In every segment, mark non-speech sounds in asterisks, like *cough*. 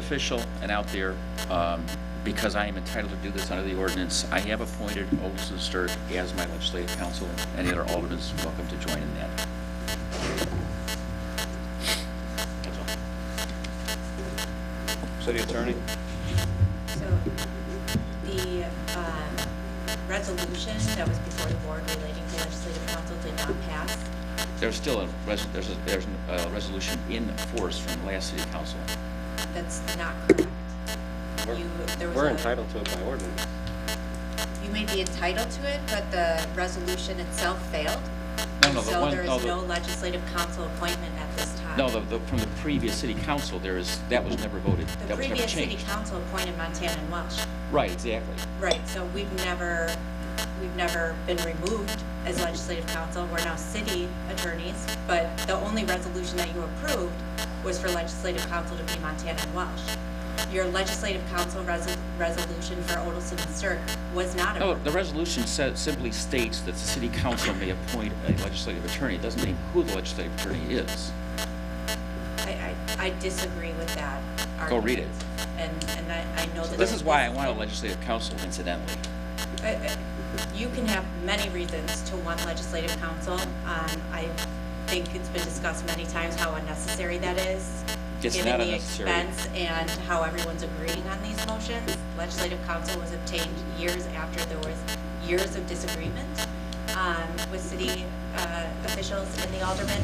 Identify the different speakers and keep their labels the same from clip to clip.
Speaker 1: official and out there, um, because I am entitled to do this under the ordinance, I have appointed Olson Sturt as my legislative counsel. Any other aldermen is welcome to join in that. That's all.
Speaker 2: City attorney?
Speaker 3: So the um, resolution that was before the board relating to legislative council did not pass.
Speaker 1: There's still a, res- there's a, there's a resolution in force from the last city council.
Speaker 3: That's not correct.
Speaker 2: We're-
Speaker 3: You- there was
Speaker 2: We're
Speaker 3: a-
Speaker 2: entitled to it by ordinance.
Speaker 3: You may be entitled to it, but the resolution itself failed.
Speaker 1: No, no, the
Speaker 3: So
Speaker 1: one-
Speaker 3: there
Speaker 1: no,
Speaker 3: is
Speaker 1: the-
Speaker 3: no legislative council appointment at this time.
Speaker 1: No, the, the, from the previous city council, there is, that was never voted.
Speaker 3: The
Speaker 1: That was never
Speaker 3: previous city
Speaker 1: changed.
Speaker 3: council appointed Montana and Welsh.
Speaker 1: Right, exactly.
Speaker 3: Right, so we've never, we've never been removed as legislative council. We're now city attorneys, but the only resolution that you approved was for legislative council to be Montana and Welsh. Your legislative council res- resolution for Odelson and Cirque was not
Speaker 1: Oh, No, the
Speaker 3: approved.
Speaker 1: resolution sa- simply states that the city council may appoint a legislative attorney. It doesn't name who the legislative attorney is.
Speaker 3: I, I, I disagree with that argument.
Speaker 1: Go read it.
Speaker 3: And, and I, I know that.
Speaker 1: This is why I want a legislative council incidentally.
Speaker 3: I- I- You can have many reasons to want legislative council. Um, I think it's been discussed many times how unnecessary that is.
Speaker 1: It's not unnecessary.
Speaker 3: Given the expense and how everyone's agreeing on these motions. Legislative council was obtained years after there was years of disagreement um, with city uh, officials and the aldermen.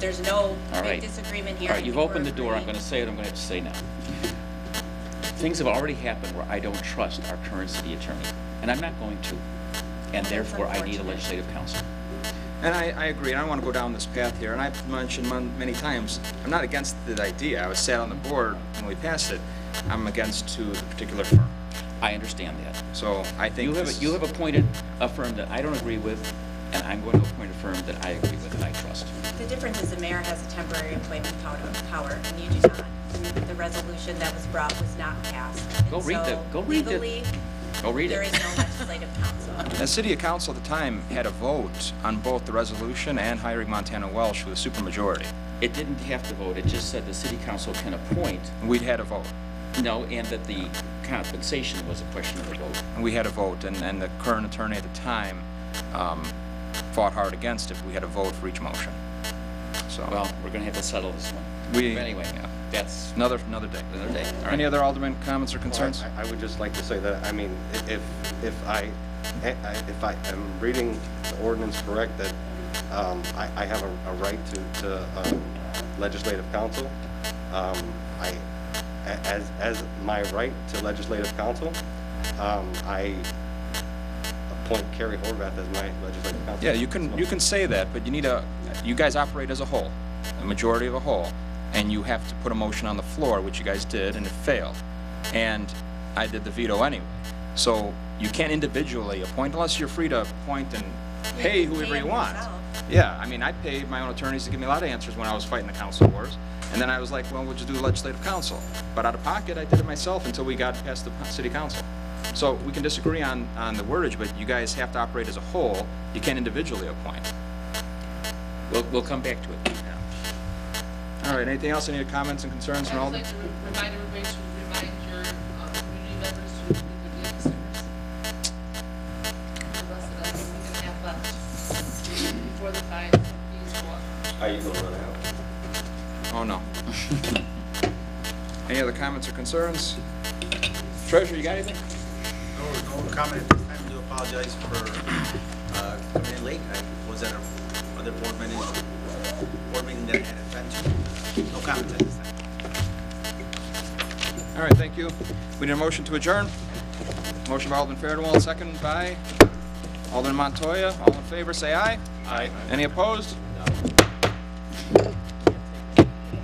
Speaker 3: There's no
Speaker 1: All right.
Speaker 3: big disagreement here.
Speaker 1: All right, you've opened the door. I'm
Speaker 3: We're
Speaker 1: going to say it. I'm going to have to say now. Things have already happened where I don't trust our current city attorney, and I'm not going to. And therefore, I need a
Speaker 3: unfortunate.
Speaker 1: legislative council.
Speaker 4: And I, I agree, and I don't want to go down this path here, and I've mentioned mon- many times, I'm not against the idea. I was sat on the board when we passed it. I'm against to the particular firm.
Speaker 1: I understand that.
Speaker 4: So I think.
Speaker 1: You
Speaker 4: this
Speaker 1: have, you
Speaker 4: is-
Speaker 1: have appointed a firm that I don't agree with, and I'm going to appoint a firm that I agree with and I trust.
Speaker 3: The difference is the mayor has a temporary appointment pow- power, and you do not. And The resolution that was brought was not passed. And
Speaker 1: Go read the-
Speaker 3: so
Speaker 1: go read the-
Speaker 3: Legally,
Speaker 1: Go read it.
Speaker 3: there is no legislative council.
Speaker 4: The city council at the time had a vote on both the resolution and hiring Montana Welsh with a supermajority.
Speaker 1: *laughs* It didn't have to vote, it just said the city council can appoint,
Speaker 4: And We'd had a vote,
Speaker 1: no, and that the compensation was a question of the vote.
Speaker 4: and we had a vote, and, and the current attorney at the time um, fought hard against it. We had a vote for each motion. So.
Speaker 1: Well, we're gonna have to settle this one.
Speaker 4: We-
Speaker 1: But Anyway,
Speaker 4: yeah.
Speaker 1: that's
Speaker 4: Another, another day.
Speaker 1: another day. All
Speaker 4: Any
Speaker 1: right.
Speaker 4: other alderman comments or
Speaker 2: Well,
Speaker 4: concerns?
Speaker 2: I I would just like to say that, I mean, i- if, if I, I- if I am reading the ordinance correct, that um, I, I have a a right to, to um, legislative counsel, um, I, a- as, as my right to legislative counsel, um, I appoint Carrie Horvath as my legislative counsel.
Speaker 4: Yeah, you can, you can say that, but you need a, you guys operate as a whole, a majority of a whole, and you have to put a motion on the floor, which you guys did, and it failed. And I did the veto anyway. So you can't individually appoint unless you're free to appoint and
Speaker 3: You
Speaker 4: pay
Speaker 3: can
Speaker 4: whoever
Speaker 3: pay
Speaker 4: you
Speaker 3: them
Speaker 4: want.
Speaker 3: yourself.
Speaker 4: Yeah, I mean, I paid my own attorneys to give me a lot of answers when I was fighting the council wars. And then I was like, well, we'll just do legislative council. But out of pocket, I did it myself until we got past the city council. So we can disagree on, on the wordage, but you guys have to operate as a whole. You can't individually appoint.
Speaker 1: We'll, we'll come back to it.
Speaker 4: All right, anything else? Any comments and concerns from all?
Speaker 5: I'd just like to re- remind everybody to remind your uh, community members to include the visitors. The rest of us, we can have left before the fines and fees go up.
Speaker 2: Are you going to run out?
Speaker 4: Oh, no. *laughs* Any other comments or concerns? Treasurer, you got anything?
Speaker 6: No, no comment at this time. I do apologize for uh, coming in late. I was at a- other board meeting, board meeting that I had attended. No comment at this time.
Speaker 4: All right, thank you. We need a motion to adjourn. Motion by Alderman Fairwell, second by Alderman Montoya. All in favor, say aye. Aye. Any opposed? No.